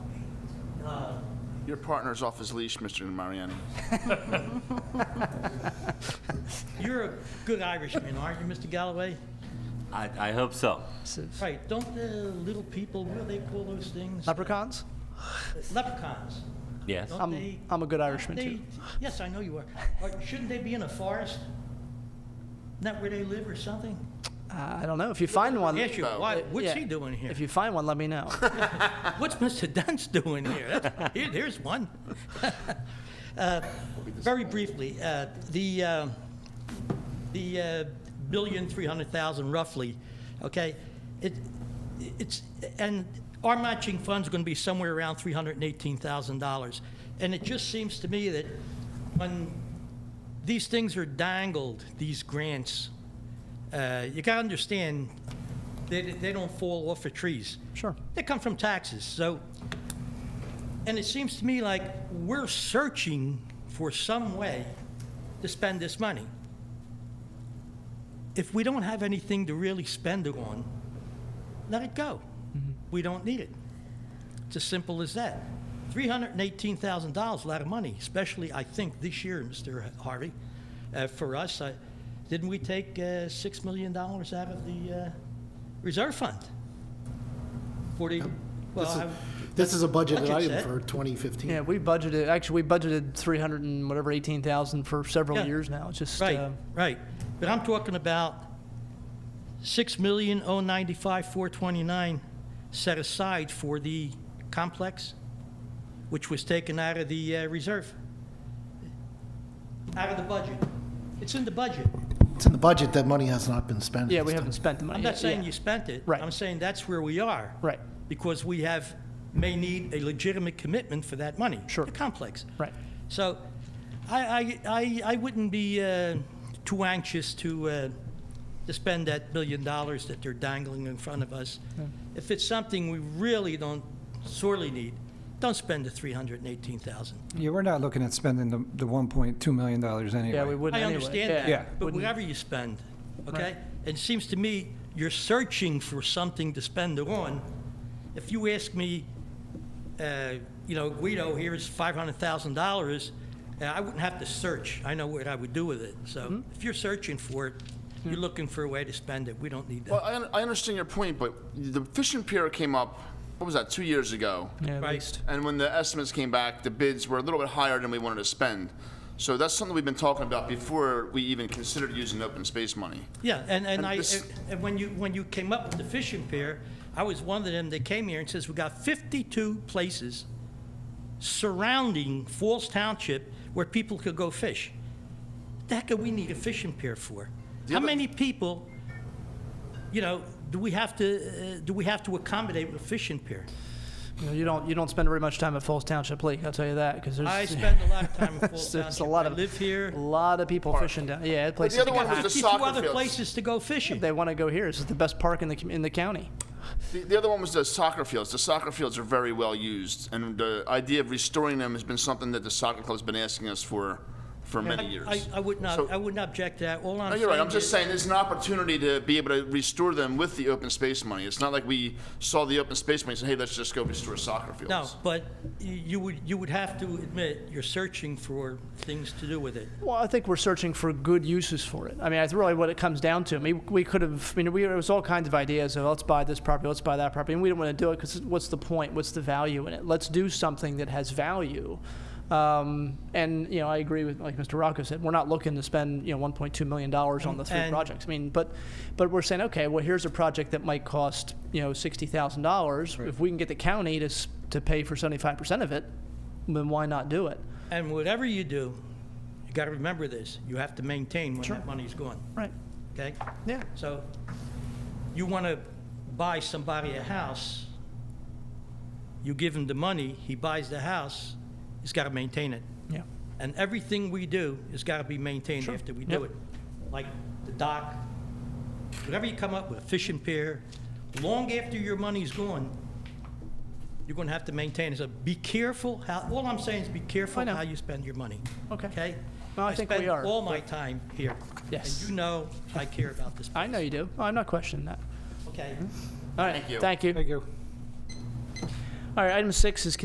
Your partner's off his leash, Mr. Mariani. You're a good Irishman, aren't you, Mr. Galloway? I, I hope so. Right, don't the little people, what do they call those things? Leprechauns? Leprechauns. Yes. Don't I'm, they- I'm a good Irishman they- too. Yes, I know you are. Or Shouldn't they be in a forest? Isn't that where they live or something? Uh, I don't know. If you find one, Yes, you, why, what's yeah, he doing here? If you find one, let me know. What's Mr. Dunst doing here? That's- here- Here's one. Uh, Very briefly, uh, the, uh, the uh, billion, 300,000 roughly, okay? It, it's, and our matching fund's going to be somewhere around $318,000. And it just seems to me that when these things are dangled, these grants, uh, you got to understand, they, they don't fall off of trees. Sure. They come from taxes, so, and it seems to me like we're searching for some way to spend this money. If we don't have anything to really spend it on, let it go. We don't need it. It's as simple as that. Three hundred and eighteen thousand dollars, a lot of money, especially, I think, this year, Mr. Harvey. Uh, for us, I, didn't we take uh, six million dollars out of the uh, reserve fund? Forty, well, This is- I- This is a budgeted budget item set. for 2015. Yeah, we budgeted. Actually, we budgeted 300 and whatever 18,000 for several Yeah. years now. It's just Right, uh, right. But I'm talking about six million oh ninety-five four twenty-nine set aside for the complex, which was taken out of the uh, reserve, out of the budget. It's in the budget. It's in the budget, that money has not been spent. at yeah, this we time. haven't spent the money. I'm not yet. saying Yeah. you spent it. Right. I'm saying that's where we are. Right. Because we have, may need a legitimate commitment for that money. Sure. The complex. Right. So I, I, I, I wouldn't be uh, too anxious to, uh, to spend that billion dollars that they're dangling in front of us. If it's something we really don't sorely need, don't spend the 318,000. Yeah, we're not looking at spending the, the one point two million dollars anyway. Yeah, we wouldn't. I anyway. understand Yeah. that, but Wouldn't- whatever you spend, okay? It seems to me you're searching for something to spend it on. If you ask me, uh, you know, Guido, here's five hundred thousand dollars, uh, I wouldn't have to search. I know what I would do with it. So Mm-hmm. if you're searching for it, you're looking for a way to spend it. We don't need Well, that. I, un- I understand your point, but the fishing pier came up, what was that, two years ago? Yeah, at Right. least. And when the estimates came back, the bids were a little bit higher than we wanted to spend. So that's something we've been talking about before we even considered using open space money. Yeah, and, and And I, this- and when you, when you came up with the fishing pier, I was one of them that came here and says, we got fifty-two places surrounding Falls Township where people could go fish. The heck do we need a fishing pier for? The How other- many people, you know, do we have to, uh, do we have to accommodate with a fishing pier? You, know, you don't you don't spend very much time at Falls Township Lake. I'll tell you that because there's I spend a lot of time in Falls it's, it's Township. a lot I of live a here. lot of people fishing down. Yeah, that place. The other is- one was the Fifty-two soccer other fields. places to go fishing. They want to go here. It's the best park in the com- in the county. The, the other one was the soccer fields. The soccer fields are very well used, and the idea of restoring them has been something that the soccer club's been asking us for, for many years. I, I would So- not, I wouldn't object to that. All I'm No, saying you're right. I'm just is- saying there's an opportunity to be able to restore them with the open space money. It's not like we saw the open space money and said, hey, let's just go restore soccer fields. No, but you- you would, you would have to admit, you're searching for things to do with it. Well, I think we're searching for good uses for it. I mean, that's really what it comes down to. I mean, we could have, I mean, we, it was all kinds of ideas of let's buy this property, let's buy that property, and we didn't want to do it because what's the point? What's the value in it? Let's do something that has value. Um, and, you know, I agree with, like Mr. Rocco said, we're not looking to spend, you know, $1.2 million on the three And- projects. I mean, but, but we're saying, okay, well, here's a project that might cost, you know, $60,000. If we can get the county to, s- to pay for 75% of it, then why not do it? And whatever you do, you got to remember this, you have to maintain when that money's gone, Right. okay? Yeah. So you want to buy somebody a house, you give him the money, he buys the house, he's got to maintain it. Yeah. And everything we do has got to be maintained Sure. after we do Yep. it. Like the dock, whatever you come up with, fishing pier, long after your money's gone, you're going to have to maintain it. So be careful how, all I'm saying is be careful I know. how you spend your money. Okay. Okay? Well, I think we spend are, all my time here. Yes. And you know I care about this I know place, you do. I'm not questioning that. Okay? All right. Thank you. Thank you. Thank you. All right. Item six is